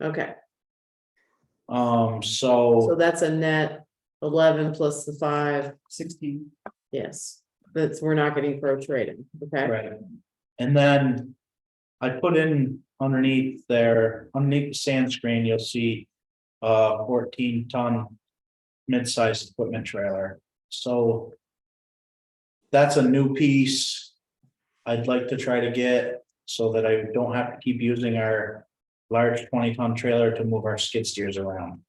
Okay, Um, so so that's a net eleven plus the five, sixteen. yes, that's, we're not getting pro trading, okay? right. And then I put in underneath there, underneath the sand screen, you'll see a fourteen ton mid-sized equipment trailer. So that's a new piece I'd like to try to get so that I don't have to keep using our large twenty ton trailer to move our skid steers around.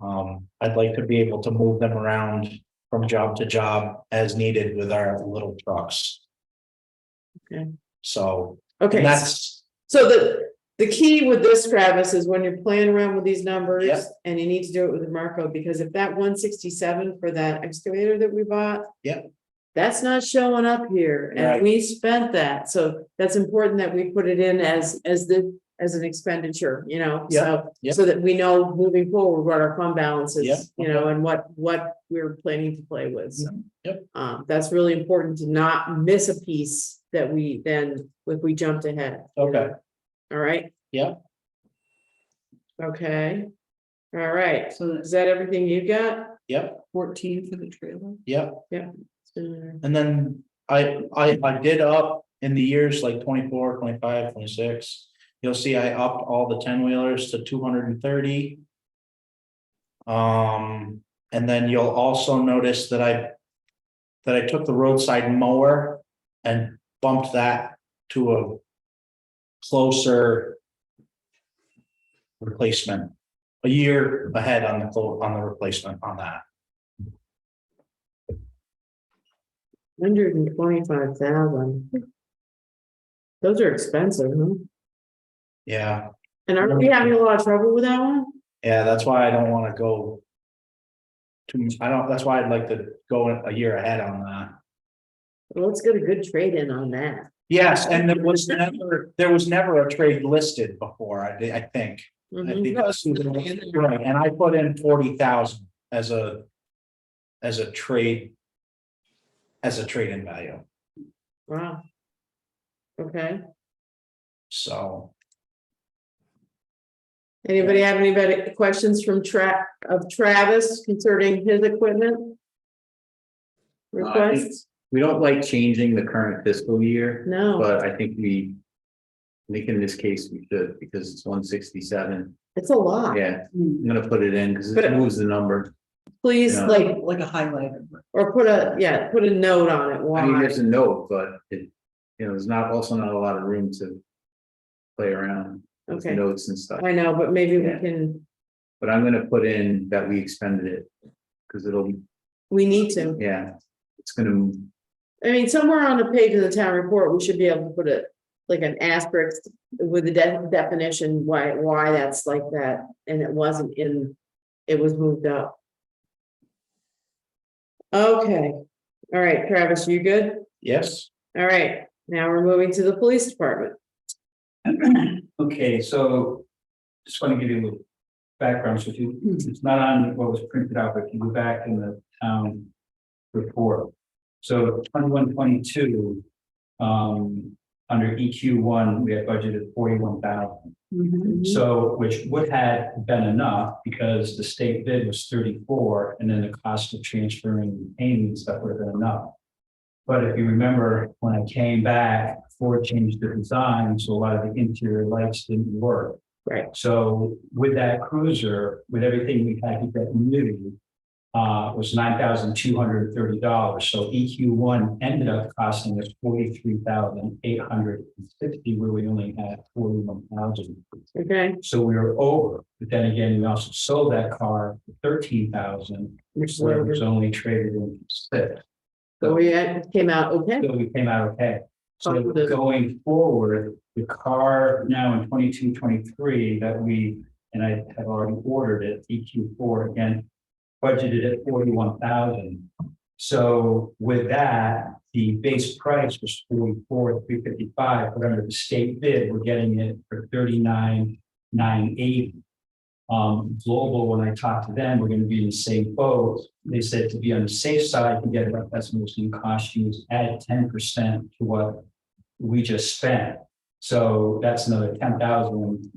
Um, I'd like to be able to move them around from job to job as needed with our little trucks. Okay. So, and Okay, that's, so the, the key with this, Travis, is when you're playing around with these Yep. numbers, and you need to do it with the Marco, because if that one sixty-seven for that excavator that we bought. Yep. That's not showing up here, and Right. we spent that, so that's important that we put it in as, as the, as an expenditure, you know, Yep. so. Yep. So that we know moving forward what our fund balance Yep. is, you know, and what, what we're planning to play with, so. Mm-hmm. Yep. Um, that's really important to not miss a piece that we then, if we jumped ahead. you Okay. know? All right? Yep. Okay. All right, So that's is that everything you got? yep, fourteen for the trailer. yep. Uh, And then I, I, I did up in the years like 24, 25, 26. twenty-six. You'll see I upped all the ten wheelers to two hundred and thirty. Um, and then you'll also notice that I, that I took the roadside mower and bumped that to a closer replacement, a year ahead on the, clo- on the replacement on that. Hundred and twenty-five thousand. Those are expensive, huh? Yeah, And aren't we having a lot of trouble with that one? Yeah, that's why I don't wanna go. Too, much- I don't, that's why I'd like to go a year ahead on that. Let's get a good trade-in on that. Yes, and there was never, there was never a trade listed before, I, thi- I think. I Mhm. think- Right, and I put in forty thousand as a. As a trade. As a trade in value, Wow. Okay, so. anybody have any better questions from Tra- of Travis concerning his equipment? Requests? Uh, We don't like changing the current fiscal year, No, but I think we. I think in this case we should, because it's one sixty-seven. it's a lot. Yeah, I'm gonna put it in because it Ah. But- moves the number. Please, Yeah. like, Like a highlighter. or put a, yeah, put a note on it, I mean, why? there's a note, but it, you know, there's not, also not a lot of room to. Play around with Okay, notes and stuff, I know, but maybe we Yeah. can, but I'm gonna put in that we expended it. Because it'll, we need to. yeah, it's gonna, move. I mean, somewhere on the page of the town report, we should be able to put a, like an asterisk with the de- definition, why, why that's like that, and it wasn't in, it was moved up. Okay, all right, Travis, you good? Yes, All right, now we're moving to the police department. Okay, so just want to give you a little background, so if you, it's not on what was printed out, but if you go back in the town report. So twenty-one, twenty-two, um, under EQ one, we had budgeted forty-one thousand. Mm-hmm. Mm-hmm. So, which would have been enough because the state bid was thirty-four and then the cost of transferring payments, that would have been enough. But if you remember, when I came back, Ford changed the design, so a lot of the interior lights didn't work. Right. So with that cruiser, with everything we had that new, uh, was nine thousand two hundred and thirty dollars. So EQ one ended up costing us forty-three thousand eight hundred and sixty, where we only had forty-one thousand. Okay, So we were over, but then again, we also sold that car for thirteen thousand, which where it was only traded in for six. we had- came out okay. So we came out okay. So Positive. going forward, the car now in 22, 23 that we, and I have already ordered it, EQ four again, budgeted at forty-one thousand. So with that, the base price was forty-four, three fifty-five, but under the state bid, we're getting it for thirty-nine, nine eighty. Um, global, when I talked to them, we're gonna be in the same boat. They said to be on the safe side, to get about that's what's gonna cost you is add ten percent to what we just spent. So that's another ten thousand